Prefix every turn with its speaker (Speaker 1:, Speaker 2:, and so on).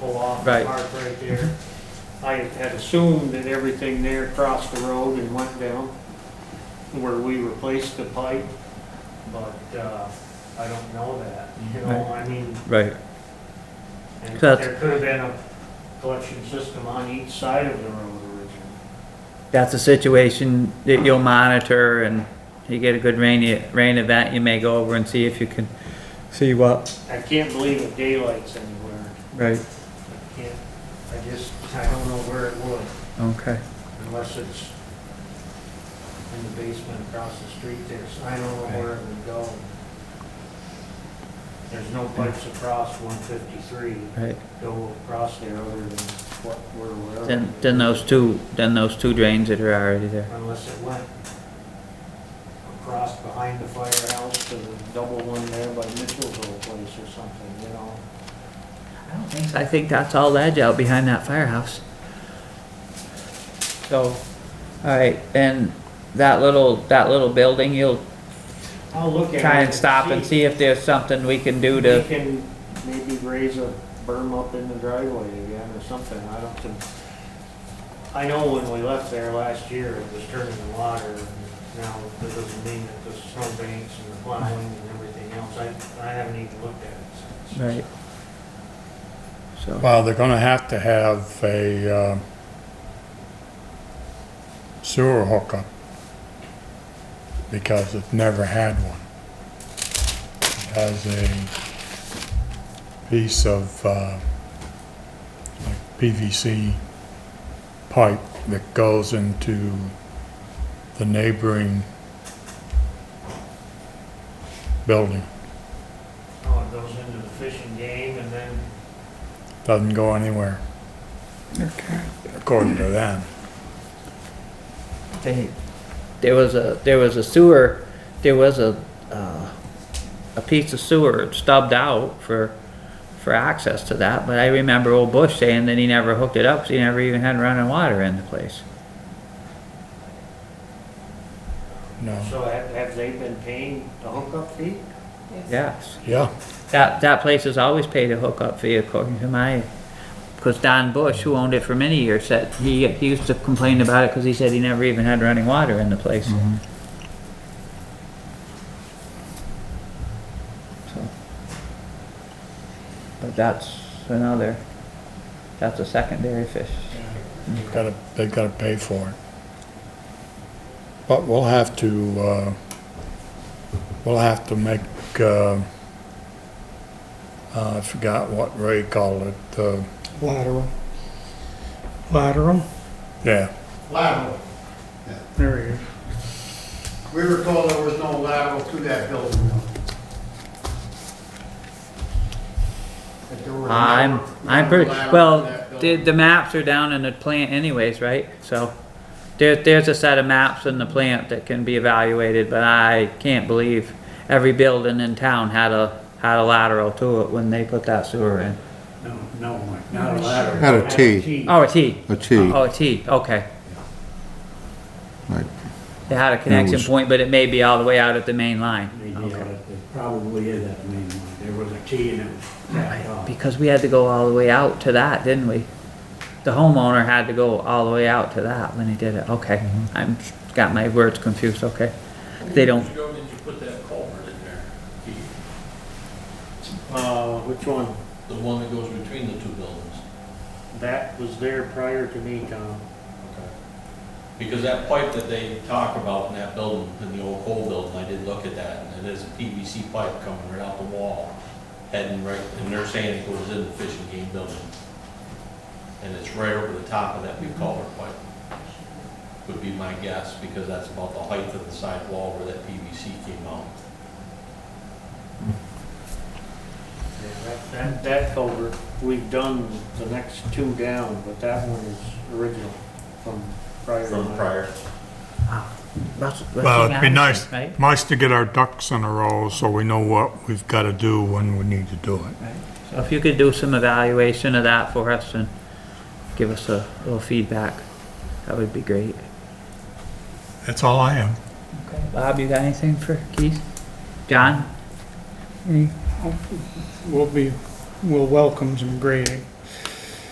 Speaker 1: pull off
Speaker 2: Right.
Speaker 1: the park right there. I had assumed that everything there crossed the road and went down where we replaced the pipe, but, uh, I don't know that, you know, I mean,
Speaker 2: Right,
Speaker 1: and
Speaker 2: Cut.
Speaker 1: there could have been a collection system on each side of the road originally.
Speaker 2: that's a situation that you'll monitor and you get a good rainy, rain event, you may go over and see if you can see what,
Speaker 1: I can't believe it daylights anywhere.
Speaker 2: right,
Speaker 1: I can't, I just, I don't know where it would.
Speaker 2: okay.
Speaker 1: unless it's in the basement across the street there, so I don't know where it would go. There's no pipes across one fifty-three,
Speaker 2: Right,
Speaker 1: go across there other than what, where, wherever.
Speaker 2: then, then those two, then those two drains that are already there,
Speaker 1: Unless it went across behind the firehouse to the double one there by Mitchell's old place or something, you know?
Speaker 2: I don't think, so. I think that's all ledge out behind that firehouse. So, alright, and that little, that little building, you'll
Speaker 1: I'll look at it.
Speaker 2: try and stop and see if there's something we can do to.
Speaker 1: We can maybe raise a berm up in the driveway again or something, I don't think. I know when we left there last year, it was turning the water, now that doesn't mean that the snow banks and the plowing and everything else, I, I haven't even looked at it since.
Speaker 2: Right. So,
Speaker 3: Well, they're gonna have to have a uh, sewer hookup because it never had one. It has a piece of uh, like PVC pipe that goes into the neighboring building.
Speaker 1: Oh, it goes into the fishing game and then,
Speaker 3: Doesn't go anywhere. According to them.
Speaker 2: they, there was a, there was a sewer, there was a, uh, a piece of sewer stubbed out for, for access to that, but I remember old Bush saying that he never hooked it up, 'cause he never even had running water in the place.
Speaker 3: No.
Speaker 1: so have, have they been paying the hookup fee?
Speaker 2: Yes,
Speaker 3: Yeah.
Speaker 2: that, that place has always paid a hookup fee according to my, because Don Bush, who owned it for many years, said, he, he used to complain about it because he said he never even had running water in the place. So. But that's another, that's a secondary fish.
Speaker 3: They've gotta, they've gotta pay for it. But we'll have to, uh, we'll have to make, uh, I forgot what Ray called it, uh,
Speaker 4: Lateral. Lateral?
Speaker 3: yeah,
Speaker 5: lateral.
Speaker 4: There he is.
Speaker 5: We were told there was no lateral to that building. That there were no-
Speaker 2: I'm, I'm
Speaker 5: no
Speaker 2: pretty,
Speaker 5: lateral to
Speaker 2: well,
Speaker 5: that
Speaker 2: the,
Speaker 5: building.
Speaker 2: the maps are down in the plant anyways, right? So, there, there's a set of maps in the plant that can be evaluated, but I can't believe every building in town had a, had a lateral to it when they put that sewer in.
Speaker 5: No, no, Mike, not a lateral.
Speaker 6: Had a T.
Speaker 2: Oh, a T,
Speaker 6: A T,
Speaker 2: oh, a T, okay.
Speaker 6: Right.
Speaker 2: They had a connection
Speaker 6: was-
Speaker 2: point, but it may be all the way out at the main line.
Speaker 7: They
Speaker 2: Okay.
Speaker 7: did,
Speaker 1: uh,
Speaker 7: but it probably is that main one. There was a T and it was backed off.
Speaker 2: Because we had to go all the way out to that, didn't we? The homeowner had to go all the way out to that when he did it, okay. I'm, got my words confused, okay. They don't,
Speaker 8: ago did you put that culvert in there?
Speaker 1: Uh, which one?
Speaker 8: The one that goes between the two buildings?
Speaker 1: That was there prior to me, Tom.
Speaker 8: Okay. Because that pipe that they talk about in that building, in the old coal building, I did look at that, and it is a PVC pipe coming right out the wall, heading right, and they're saying it goes in the fishing game building. And it's right over the top of that big culvert pipe, would be my guess, because that's about the height of the side wall where that PVC came out.
Speaker 1: Yeah, that- That, that culvert, we've done the next two down, but that one is original from prior.
Speaker 8: From prior,
Speaker 2: Russell-
Speaker 3: Well, it'd be
Speaker 2: Russell
Speaker 3: nice.
Speaker 2: Madison,
Speaker 3: nice to get our ducks in a row so we know what we've gotta do when we need to do it.
Speaker 2: Right, right. So if you could do some evaluation of that for us and give us a little feedback, that would be great.
Speaker 3: That's all I am.
Speaker 2: Okay. Bob, you got anything for Keith? John?
Speaker 4: Mm. We'll be, we'll welcome some grading.